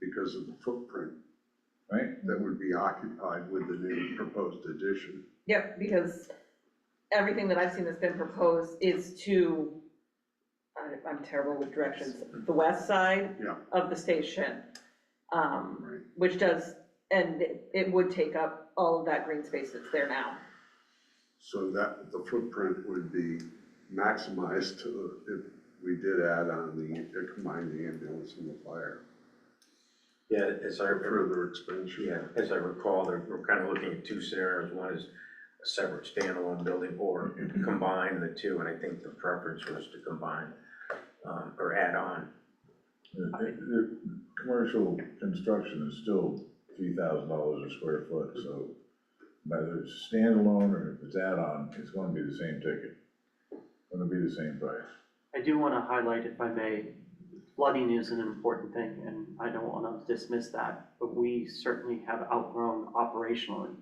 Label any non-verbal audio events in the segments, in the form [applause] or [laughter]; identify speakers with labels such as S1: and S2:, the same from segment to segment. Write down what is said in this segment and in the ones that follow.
S1: because of the footprint
S2: right?
S1: that would be occupied with the new proposed addition.
S3: Yep, because everything that I've seen that's been proposed is to, I- I'm terrible with directions, the west side
S1: Yeah.
S3: of the station. um,
S1: Right.
S3: Which does, and it it would take up all of that green space that's there now.
S1: So that, the footprint would be maximized to, if we did add on the, combine the ambulance and the fire,
S4: Yeah, as I, re-
S1: further expansion.
S4: yeah, as I recall, they're, we're kind of looking at two scenarios. One is a separate standalone building or combine the two, and I think the preference was to combine, um, or add on.
S2: The, the- the commercial construction is still three thousand dollars a square foot, so whether it's standalone or if it's add-on, it's gonna be the same ticket. Gonna be the same price.
S5: I do want to highlight, if I may, flooding is an important thing, and I don't want to dismiss that, but we certainly have outgrown operationally.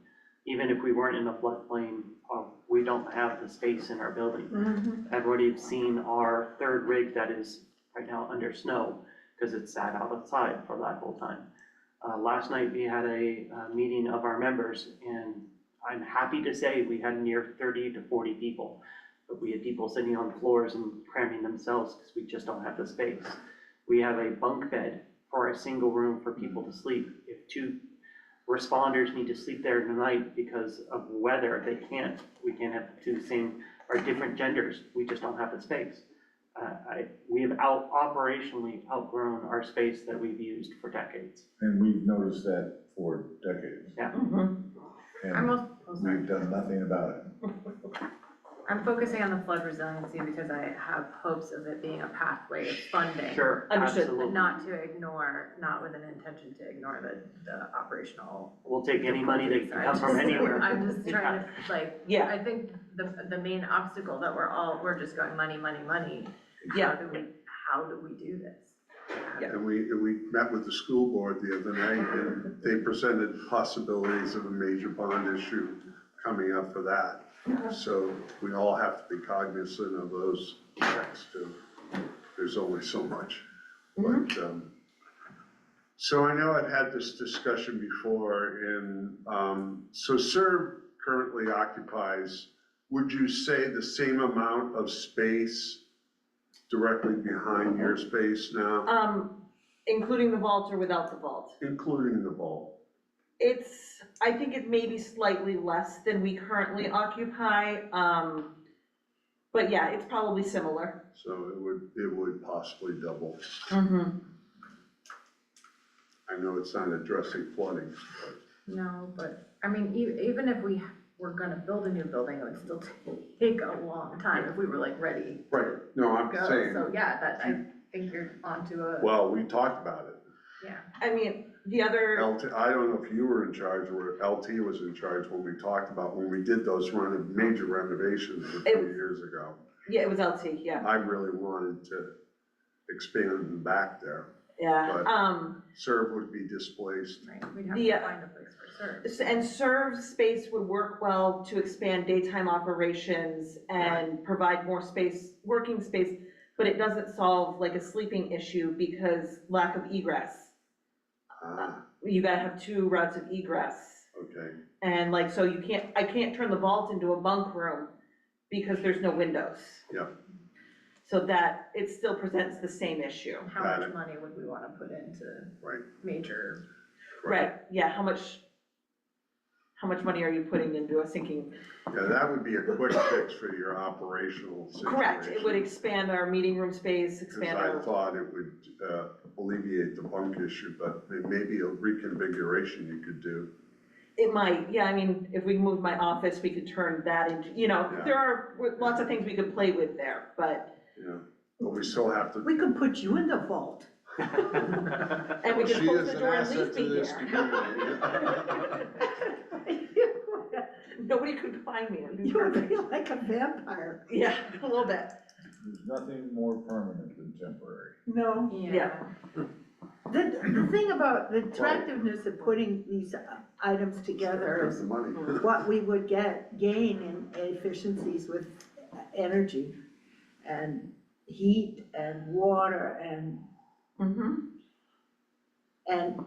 S5: Even if we weren't in a floodplain, uh, we don't have the space in our building. I've already seen our third rig that is right now under snow, because it sat outside for that whole time. Uh, Last night, we had a uh, meeting of our members, and I'm happy to say we had near 30 to 40 people. But we had people sitting on floors and cramming themselves because we just don't have the space. We have a bunk bed for a single room for people to sleep. If two responders need to sleep there tonight because of weather, they can't. We can't have two same or different genders. We just don't have the space. Uh, I, we have out, operationally outgrown our space that we've used for decades.
S2: And we've noticed that for decades,
S3: Mhm.
S6: I'm,
S2: and
S6: al- oh, sorry.
S2: we've done nothing about it.
S6: I'm focusing on the flood resiliency because I have hopes of it being a pathway of funding.
S5: Sure,
S3: Understood.
S6: But
S5: absolutely.
S6: not to ignore, not with an intention to ignore the, the operational.
S5: We'll take any money that can come from
S6: Sorry,
S5: anywhere.
S6: [laughs] I'm just trying to, like,
S3: Yeah,
S6: I think the, the main obstacle that we're all, we're just going money, money, money. How
S3: Yeah.
S6: do we, how do we do this?
S1: And we, and we met with the school board the other night, and they presented possibilities of a major bond issue coming up for that. So we all have to be cognizant of those effects too. There's only so much. But, um, so I know I've had this discussion before and, um, so serve currently occupies, would you say the same amount of space directly behind your space now?
S3: um, including the vault or without the vault.
S1: including the vault.
S3: It's, I think it may be slightly less than we currently occupy, um, but yeah, it's probably similar.
S1: So it would, it would possibly double. I know it's not addressing flooding,
S6: No, but, I mean, e- even if we were gonna build a new building, it would still take a long time if we were like ready
S1: but. Right, no, I'm
S6: go,
S1: saying,
S6: so yeah, that, I think you're onto a,
S1: well, we talked about it.
S6: yeah.
S3: I mean, the other,
S1: LT, I don't know if you were in charge or LT was in charge when we talked about, when we did those reno- major renovations a few
S3: It-
S1: years ago.
S3: yeah, it was LT, yeah,
S1: I really wanted to expand them back there.
S3: yeah.
S1: But-
S3: Um,
S1: Serve would be displaced.
S6: Right, we'd have
S3: The, uh,
S6: to find a place for serve.
S3: S- And serve space would work well to expand daytime operations and provide more space, working space, but it doesn't solve like a sleeping issue because lack of egress.
S1: Ah,
S3: You gotta have two routes of egress.
S1: okay,
S3: And like, so you can't, I can't turn the vault into a bunk room because there's no windows.
S1: Yeah.
S3: So that, it still presents the same issue.
S6: How
S1: Got
S6: much
S1: it.
S6: money would we wanna put into
S1: Right.
S6: major,
S3: Right, yeah, how much, how much money are you putting into a sinking
S1: yeah, that would be a quick fix for your operational situation.
S3: Correct, it would expand our meeting room space,
S1: Because
S3: expand
S1: I
S3: our,
S1: thought it would uh, alleviate the bunk issue, but may- maybe a reconfiguration you could do.
S3: it might, yeah, I mean, if we move my office, we could turn that into, you know,
S1: Yeah.
S3: there are w- lots of things we could play with there, but,
S1: Yeah, but we still have to.
S7: We could put you in the vault.
S3: and we could
S1: She
S3: close
S1: is
S3: the
S1: an
S3: door and
S1: asset
S3: leave
S1: to
S3: me
S1: this
S3: here. [laughs]
S1: community.
S7: [laughs]
S3: Nobody could find me, it would be
S7: You would
S3: perfect.
S7: be like a vampire.
S3: [laughs] Yeah, a little bit,
S2: There's nothing more permanent than temporary.
S7: No,
S3: Yeah.
S7: the, the thing about the attractiveness of putting these uh, items together
S1: There's
S7: is
S1: the money.
S3: Hmm.
S7: what we would get, gain in efficiencies with energy and heat and water and,
S3: mm-hmm.
S7: and